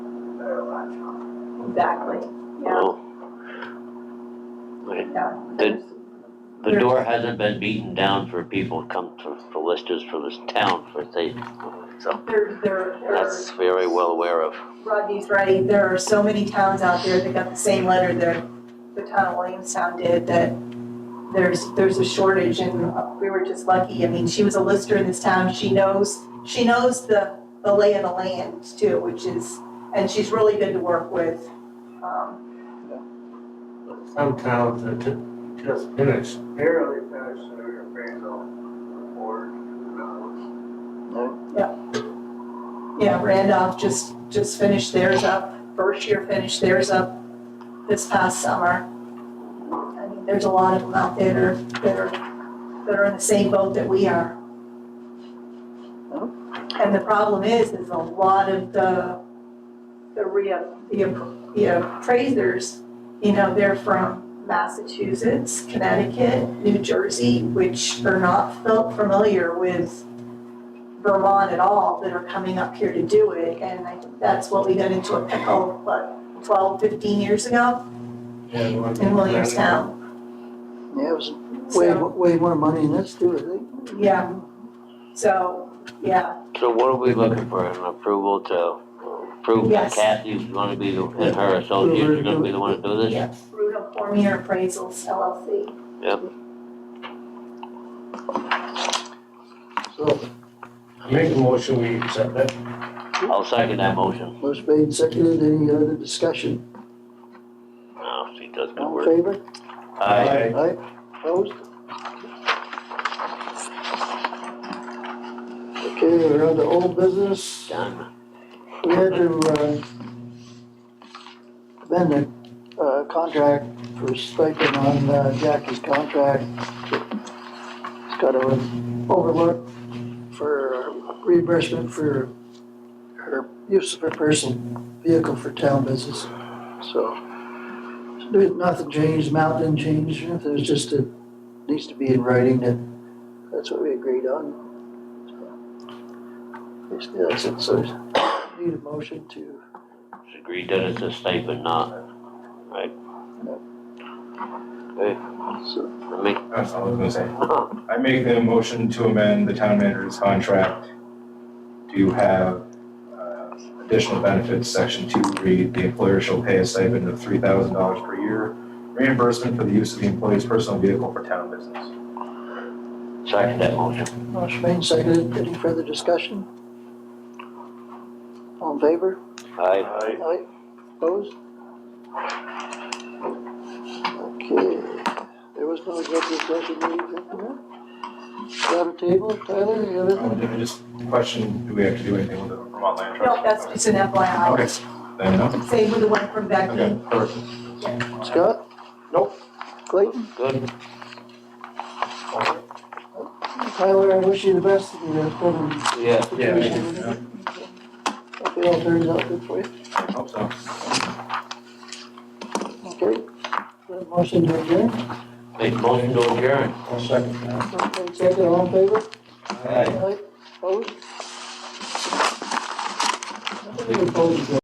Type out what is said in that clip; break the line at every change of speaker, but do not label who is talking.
Exactly, yeah,
Oh. Wait,
yeah.
Did- The door hasn't been beaten down for people to come to, for listers for this town for they, so
There, there, there are
that's very well aware of.
Rodney's right, there are so many towns out there that got the same letter that the town of Williamstown did, that there's, there's a shortage, and we were just lucky, I mean, she was a lister in this town, she knows, she knows the, the lay of the land too, which is, and she's really good to work with. Um,
Some towns that ju- just finished,
Barely finished their appraisal report. uh,
Yeah, Randolph just, just finished theirs up, Berkshire finished theirs up this past summer. I mean, there's a lot of them out there that are, that are in the same boat that we are. And the problem is, is a lot of the, the re, the app- the appraisers, you know, they're from Massachusetts, Connecticut, New Jersey, which are not felt familiar with Vermont at all, that are coming up here to do it, and I, that's what we got into a pickle, what, twelve, fifteen years ago
and one.
in Williamstown.
Yeah, it was way,
So,
way more money than this too, I think.
yeah, so, yeah,
So what are we looking for, an approval to approve that
Yes.
Kathy's gonna be, the- and her associates are gonna be the one to do this?
yeah, Rudolph Cormier Appraisals LLC.
So,
I Make a motion, we accept it.
I'll second that motion.
motion made and seconded, any other discussion?
Oh, she does good
All in
work.
favor?
Aye.
Aye, opposed? Okay, we're on to old business.
Done.
We had to, uh, amend the, uh, contract for stipend on uh, Jackie's contract. It's got to overlook for reimbursement for her use of her personal vehicle for town business. So, there- nothing changed, amount didn't change, it was just, it needs to be in writing that, that's what we agreed on. So, Basically, that's it, so Need a motion to,
It's agreed that it's a stipend, not, right?
so,
Let me,
That's all I was gonna say. I make the motion to amend the town manager's contract to have uh, additional benefits, section two, read, the employer shall pay a stipend of three thousand dollars per year, reimbursement for the use of the employee's personal vehicle for town business.
second that motion.
motion made, seconded, any further discussion? All in favor?
Aye.
Aye. Opposed? Okay, there was no executive session needed, did there? Grab a table, Tyler, you have it?
Um, did I just question, do we have to do anything with the Vermont Land Trust?
No, that's just an FYI,
Okay, then, no.
same with the one from Becky.
okay, perfect.
Scott?
Nope.
Clayton?
Good.
Tyler, I wish you the best in your upcoming
Yeah.
Yeah.
situation. Hope it all turns out good for you,
I hope so.
okay? Motion to adjourn,
Make motion to adjourn.
I'll second that.
motion made, seconded, all in favor?
Aye.
Aye. Opposed? I think opposed, yeah.